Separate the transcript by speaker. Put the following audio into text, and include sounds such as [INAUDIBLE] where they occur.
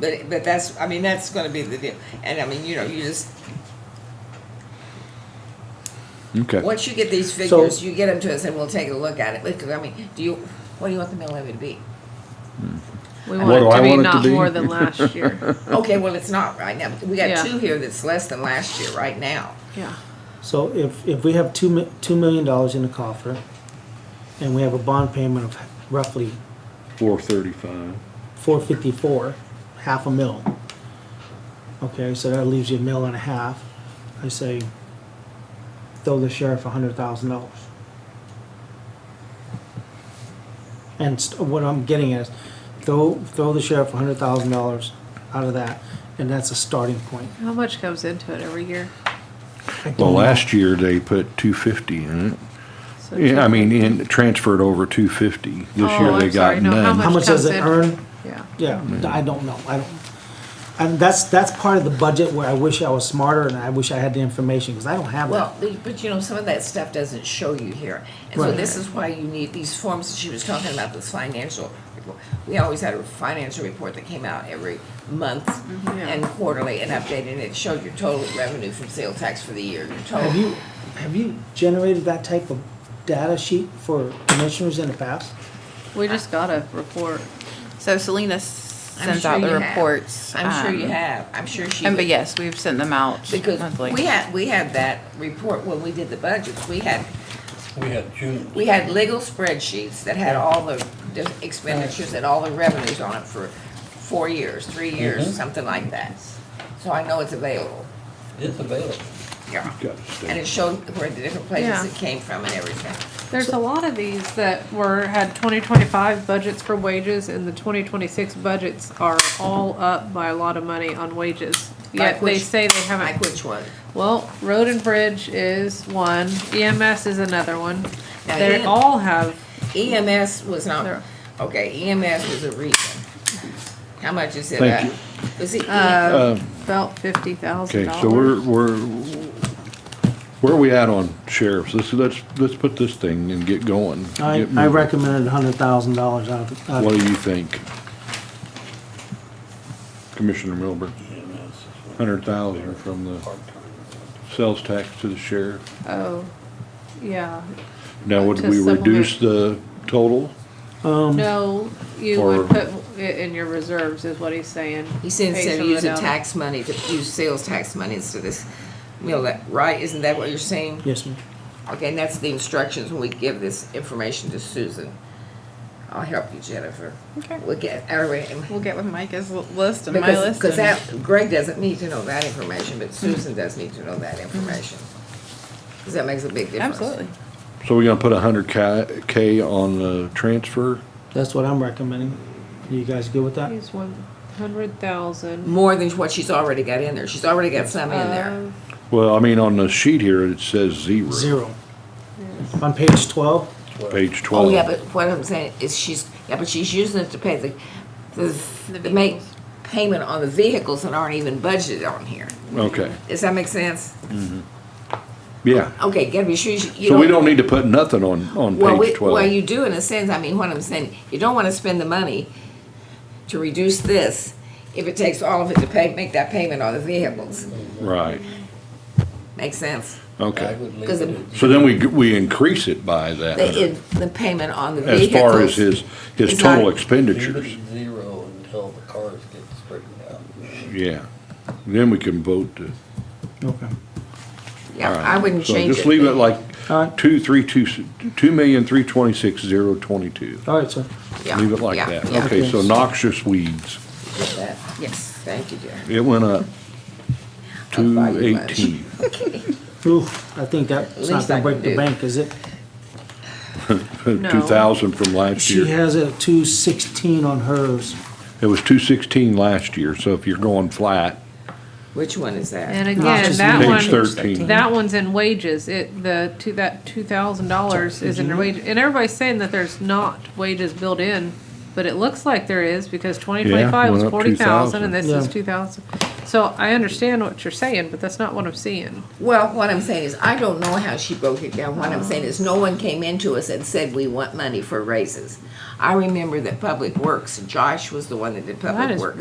Speaker 1: But, but that's, I mean, that's gonna be the deal. And I mean, you know, you just,
Speaker 2: Okay.
Speaker 1: once you get these figures, you get them to us and we'll take a look at it. Because, I mean, do you, what do you want the mill levy to be?
Speaker 3: We
Speaker 2: What
Speaker 3: want
Speaker 2: do
Speaker 3: it
Speaker 2: I
Speaker 3: to be
Speaker 2: want it to
Speaker 3: not
Speaker 2: be?
Speaker 3: more
Speaker 2: [LAUGHS]
Speaker 3: than last year.
Speaker 1: Okay, well, it's not right now. We got
Speaker 3: Yeah.
Speaker 1: two here that's less than last year right now.
Speaker 3: Yeah.
Speaker 4: So if, if we have two, mi- two million dollars in the coffer, and we have a bond payment of roughly
Speaker 2: Four thirty-five.
Speaker 4: four fifty-four, half a mil. Okay, so that leaves you a mil and a half. I say, throw the sheriff a hundred thousand dollars. And st- what I'm getting at is, throw, throw the sheriff a hundred thousand dollars out of that, and that's a starting point.
Speaker 3: How much goes into it every year?
Speaker 4: I don't
Speaker 2: Well,
Speaker 4: know.
Speaker 2: last year they put two fifty in it.
Speaker 3: So
Speaker 2: Yeah, I mean, in, transferred over two fifty. This
Speaker 3: Oh,
Speaker 2: year they
Speaker 3: I'm sorry,
Speaker 2: got
Speaker 3: no, how
Speaker 2: none.
Speaker 4: How much does it
Speaker 3: comes in?
Speaker 4: earn?
Speaker 3: Yeah.
Speaker 4: Yeah, I don't know, I don't, and that's, that's part of the budget where I wish I was smarter and I wish I had the information, because I don't have
Speaker 1: Well,
Speaker 4: that.
Speaker 1: the- but you know, some of that stuff doesn't show you here. And so
Speaker 4: Right.
Speaker 1: this is why you need these forms, she was talking about this financial report. We always had a financial report that came out every month
Speaker 3: Yeah.
Speaker 1: and quarterly and updated, and it showed your total revenue from sale tax for the year, your
Speaker 4: Have
Speaker 1: total.
Speaker 4: you, have you generated that type of data sheet for commissioners in the past?
Speaker 3: We just got a report.
Speaker 5: So Selena
Speaker 1: I'm
Speaker 5: sends
Speaker 1: sure
Speaker 5: out the
Speaker 1: you have.
Speaker 5: reports.
Speaker 1: I'm sure you
Speaker 5: um,
Speaker 1: have, I'm sure she.
Speaker 5: And but
Speaker 1: would-
Speaker 5: yes, we've sent them out
Speaker 1: Because
Speaker 5: monthly.
Speaker 1: we had, we had that report when we did the budgets, we had,
Speaker 6: We had June.
Speaker 1: we had legal spreadsheets that had all the di- expenditures and all the revenues on it for four years, three years,
Speaker 5: Mm-hmm.
Speaker 6: Mhm.
Speaker 1: something like that. So I know it's available,
Speaker 6: It's available.
Speaker 1: yeah.
Speaker 2: Got to stay.
Speaker 1: And it showed where the different
Speaker 3: Yeah.
Speaker 1: places it came from and everything.
Speaker 3: There's a lot of these that were, had twenty twenty-five budgets for wages and the twenty twenty-six budgets are all up by a lot of money on wages.
Speaker 1: Like
Speaker 3: Yet they
Speaker 1: which-
Speaker 3: say they
Speaker 1: Like
Speaker 3: haven't,
Speaker 1: which one?
Speaker 3: well, road and bridge is one, EMS is another one.
Speaker 1: Now,
Speaker 3: They
Speaker 1: EM
Speaker 3: all have,
Speaker 1: EMS E was not,
Speaker 3: There.
Speaker 1: okay, EMS was a reason. How much is it
Speaker 2: Thank
Speaker 1: up? Was it, E-
Speaker 3: uh, about fifty
Speaker 2: Okay,
Speaker 3: thousand dollars.
Speaker 2: so we're, we're, where are we at on sheriffs? Let's, let's, let's put this thing and get going.
Speaker 4: I,
Speaker 2: Get
Speaker 4: I
Speaker 2: moving.
Speaker 4: recommended a hundred thousand dollars out of, out
Speaker 2: What
Speaker 4: of-
Speaker 2: do you think? Commissioner Milburn, hundred thousand from the sales tax to the sheriff.
Speaker 3: Oh, yeah.
Speaker 2: Now, would
Speaker 3: To
Speaker 2: we reduce the total? Um,
Speaker 3: No, you
Speaker 2: Or-
Speaker 3: would put it in your reserves is what he's saying.
Speaker 1: he said instead
Speaker 3: Based
Speaker 1: of
Speaker 3: on the
Speaker 1: using
Speaker 3: data.
Speaker 1: tax money to use sales tax money instead of this, you know, that, right? Isn't that what you're saying?
Speaker 4: yes, ma'am.
Speaker 1: Okay, and that's the instructions when we give this information to Susan. I'll help you, Jennifer.
Speaker 5: Okay.
Speaker 1: We'll get, our
Speaker 5: We'll get with Mike's l- list and my
Speaker 1: Because,
Speaker 5: list.
Speaker 1: because
Speaker 5: and-
Speaker 1: that, Greg doesn't need to know that information, but Susan does need to know that information. Because that makes a big difference.
Speaker 5: Mm-hmm. Absolutely.
Speaker 2: So we're gonna put a hundred K, K on the transfer?
Speaker 4: That's what I'm recommending. You guys good with that?
Speaker 3: Use one hundred thousand.
Speaker 1: More than what she's already got in there. She's already got some in
Speaker 5: Um,
Speaker 1: there.
Speaker 2: Well, I mean, on the sheet here, it says zero.
Speaker 4: Zero. On page twelve,
Speaker 2: Page twelve.
Speaker 1: Oh, yeah, but what I'm saying is she's, yeah, but she's using it to pay the, the,
Speaker 5: The
Speaker 1: to make
Speaker 5: vehicles.
Speaker 1: payment on the vehicles that aren't even budgeted on here.
Speaker 2: Okay,
Speaker 1: Does that make sense?
Speaker 2: yeah.
Speaker 1: Okay, gotta be sure you. you
Speaker 2: So we don't need to put nothing on, on
Speaker 1: Well, we-
Speaker 2: page twelve.
Speaker 1: Well, you do in a sense, I mean, what I'm saying, you don't wanna spend the money to reduce this if it takes all of it to pay, make that payment on the vehicles.
Speaker 2: Right,
Speaker 1: Makes sense?
Speaker 6: I
Speaker 2: okay.
Speaker 6: would leave
Speaker 1: Because
Speaker 6: it
Speaker 1: it-
Speaker 6: at
Speaker 2: So then we, we increase it by that,
Speaker 1: The,
Speaker 2: hundred,
Speaker 1: it- the payment on the
Speaker 2: Uh-huh. as
Speaker 1: vehicles.
Speaker 2: far as his, his
Speaker 1: It's not-
Speaker 2: total
Speaker 6: leave it
Speaker 2: expenditures,
Speaker 6: at zero until the cars get straightened out.
Speaker 2: yeah. Then we can vote to.
Speaker 4: okay.
Speaker 1: Yeah,
Speaker 2: alright.
Speaker 1: I wouldn't
Speaker 2: So
Speaker 1: change it.
Speaker 2: Just leave it like
Speaker 4: Alright.
Speaker 2: two, three, two, s- two million, three twenty-six, zero, twenty-two.
Speaker 4: All right, sir.
Speaker 1: Yeah,
Speaker 2: Leave it like
Speaker 1: yeah,
Speaker 2: that.
Speaker 1: yeah.
Speaker 2: Okay, so
Speaker 4: Okay.
Speaker 2: noxious weeds,
Speaker 1: Did that.
Speaker 5: Yes.
Speaker 1: Thank you, dear.
Speaker 2: it went up
Speaker 1: I'll
Speaker 2: to
Speaker 1: buy you lunch.
Speaker 2: eighteen.
Speaker 4: Oof, I think that's not
Speaker 1: least I
Speaker 4: gonna
Speaker 1: can
Speaker 4: break the
Speaker 1: do.
Speaker 4: bank, is it?
Speaker 3: No.
Speaker 2: Two thousand from last
Speaker 4: She
Speaker 2: year.
Speaker 4: has a two sixteen on hers.
Speaker 2: It was two sixteen last year, so if you're going flat,
Speaker 1: Which one is that?
Speaker 3: And
Speaker 4: Not
Speaker 3: again,
Speaker 4: just
Speaker 3: that
Speaker 4: page
Speaker 2: page
Speaker 3: one,
Speaker 2: thirteen.
Speaker 3: that one's in wages. It, the, two, that two thousand dollars is in wages. And everybody's saying that there's not wages built in, but it looks like there is because twenty twenty-five was
Speaker 2: went up
Speaker 3: forty thousand and this is
Speaker 4: Yeah.
Speaker 3: two thousand. So I understand what you're saying, but that's not what I'm seeing.
Speaker 1: Well, what I'm saying is, I don't know how she broke it down. What I'm saying is, no one came into us and said, we want money for raises. I remember that Public Works, Josh was the one that did
Speaker 3: That
Speaker 1: Public
Speaker 3: is
Speaker 1: Works.